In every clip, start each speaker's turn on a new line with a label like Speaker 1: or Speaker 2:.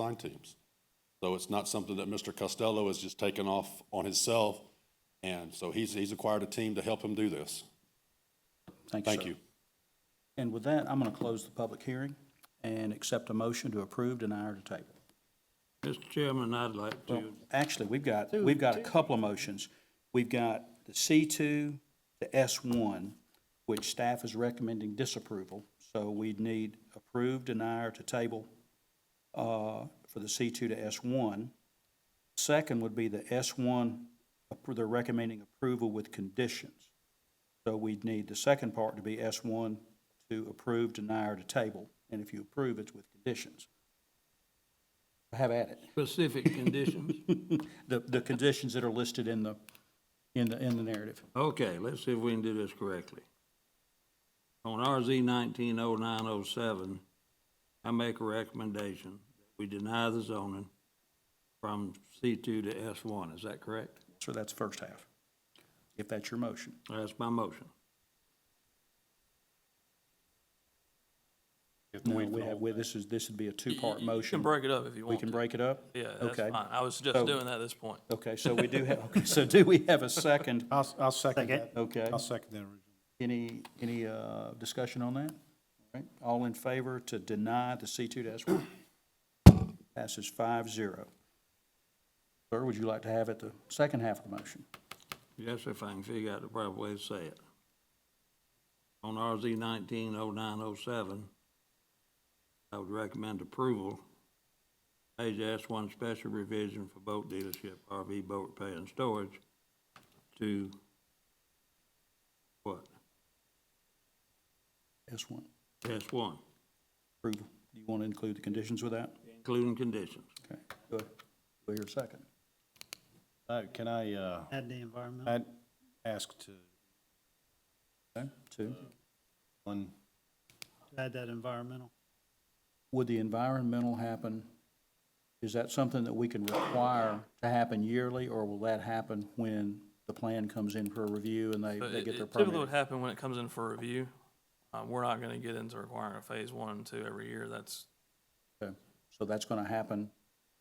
Speaker 1: design teams. So it's not something that Mr. Costello has just taken off on himself. And so he's, he's acquired a team to help him do this. Thank
Speaker 2: sir.
Speaker 1: you.
Speaker 2: And with that, I'm going to close the public hearing and accept a motion to approve, deny, or to table.
Speaker 3: Mr. Chairman, I'd like to,
Speaker 2: Actually, we've got, we've got a couple of motions. We've got the C2, the S1, which staff is recommending disapproval. So we'd need approve, deny, or to table uh, for the C2 to S1. Second would be the S1, appro- they're recommending approval with conditions. So we'd need the second part to be S1 to approve, deny, or to table. And if you approve, it's with conditions. Have at it
Speaker 3: specific conditions.
Speaker 2: the, the conditions that are listed in the, in the, in the narrative.
Speaker 3: Okay, let's see if we can do this correctly. On RZ nineteen oh nine oh seven, I make a recommendation, that we deny the zoning from C two to S one, is that correct?
Speaker 2: So that's first half, if that's your motion.
Speaker 3: That's my motion.
Speaker 2: No, we have, we- this is, this would be a two-part
Speaker 4: You can
Speaker 2: motion.
Speaker 4: break it up if you
Speaker 2: We
Speaker 4: want.
Speaker 2: can
Speaker 4: to.
Speaker 2: break it up?
Speaker 4: Yeah, that's
Speaker 2: Okay.
Speaker 4: fine. I was
Speaker 2: So-
Speaker 4: just doing that at this point.
Speaker 2: Okay, so we do have, okay, so do we have a second?
Speaker 5: I'll, I'll second that.
Speaker 2: Okay.
Speaker 5: I'll second that original.
Speaker 2: Any, any, uh, discussion on that? All right, All in favor to deny the C two dash one? Passes five zero. Sir, would you like to have it the second half of the motion?
Speaker 3: Yes, if I can figure out the proper way to say it. On RZ nineteen oh nine oh seven, I would recommend approval. Page S one special revision for boat dealership, RV boat repair and storage to what?
Speaker 2: S one,
Speaker 3: S one,
Speaker 2: approval. Do you want to include the conditions with that?
Speaker 3: including conditions.
Speaker 2: Okay, do I, do I hear a second?
Speaker 5: Uh, Can I, uh,
Speaker 6: Add the environmental.
Speaker 5: I'd ask to, Uh,
Speaker 2: Okay, two.
Speaker 5: one,
Speaker 6: Add that environmental.
Speaker 2: Would the environmental happen, is that something that we can require to happen yearly, or will that happen when the plan comes in for review and they,
Speaker 4: So
Speaker 2: they
Speaker 4: it-
Speaker 2: get
Speaker 4: it
Speaker 2: their
Speaker 4: Typically would
Speaker 2: permit?
Speaker 4: happen when it comes in for review. Uh, we're not gonna get into requiring a phase one and two every year. That's,
Speaker 2: Okay, So that's gonna happen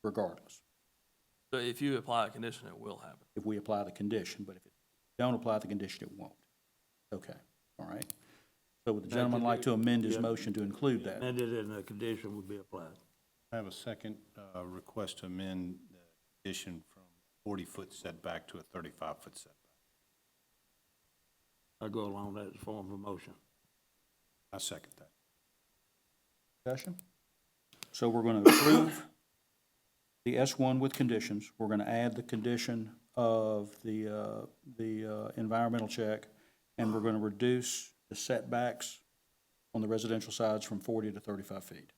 Speaker 2: regardless,
Speaker 4: so if you apply a condition, it will happen.
Speaker 2: if we apply the condition, but if it don't apply the condition, it won't. Okay, all right. So would the gentleman like to amend his motion to include that?
Speaker 3: Amended and a condition would be applied.
Speaker 5: I have a second uh, request to amend the condition from 40-foot setback to a 35-foot setback.
Speaker 3: I go along with that form of motion.
Speaker 5: I second that.
Speaker 2: Discussion? So we're going to approve the S1 with conditions. We're going to add the condition of the, uh, the uh, environmental check, and we're going to reduce the setbacks on the residential sides from 40 to 35 feet.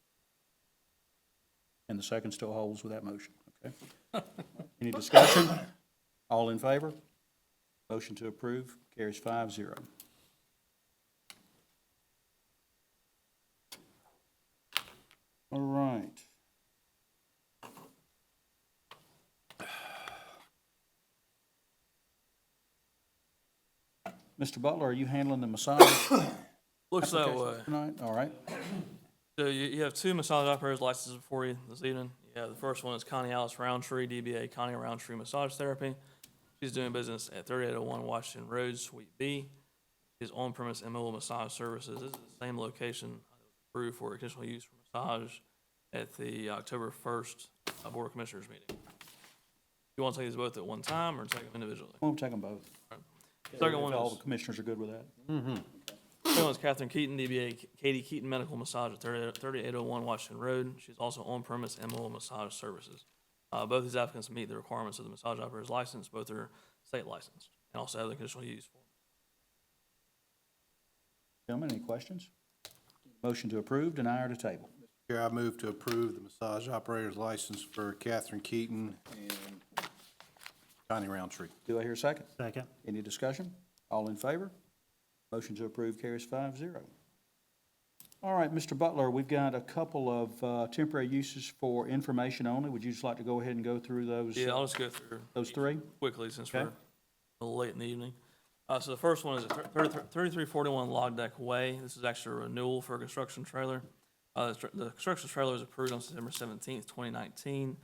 Speaker 2: And the second still holds with that motion, okay? Any discussion? All in favor? Motion to approve carries five zero. All right. Mr. Butler, are you handling the massage
Speaker 4: Looks that way.
Speaker 2: applications tonight? All right.
Speaker 4: So you, you have two massage operators licenses before you this evening. Yeah, the first one is Connie Alice Roundtree, DBA Connie Roundtree Massage Therapy. She's doing business at thirty-eight oh one Washington Road, Suite B. She's on-premise and mobile massage services. This is the same location approved for additional use for massage at the October first Board of Commissioners meeting. You want to take these both at one time or take them individually?
Speaker 2: We'll take them both.
Speaker 4: Second one
Speaker 2: If All
Speaker 4: is,
Speaker 2: the commissioners are good with that.
Speaker 4: second one is Catherine Keaton, DBA Katie Keaton Medical Massage at thirty-eight oh one Washington Road. She's also on-premise and mobile massage services. Uh, both these applicants meet the requirements of the massage operator's license, both are state licensed, and also have the conditional use form.
Speaker 2: Gentlemen, any questions? Motion to approve, deny, or to table?
Speaker 5: Chair, I move to approve the massage operator's license for Catherine Keaton and Connie Roundtree.
Speaker 2: Do I hear a second?
Speaker 6: Second.
Speaker 2: Any discussion? All in favor? Motion to approve carries five zero. All right, Mr. Butler, we've got a couple of uh, temporary uses for information only. Would you just like to go ahead and go through those,
Speaker 4: Yeah, I'll just go through.
Speaker 2: those three?
Speaker 4: quickly since
Speaker 2: Okay.
Speaker 4: we're a little late in the evening. Uh, so the first one is at thir- thirty- 3341 Log Deck Way. This is actually a renewal for a construction trailer. Uh, the str- the construction trailer was approved on September seventeenth, twenty nineteen.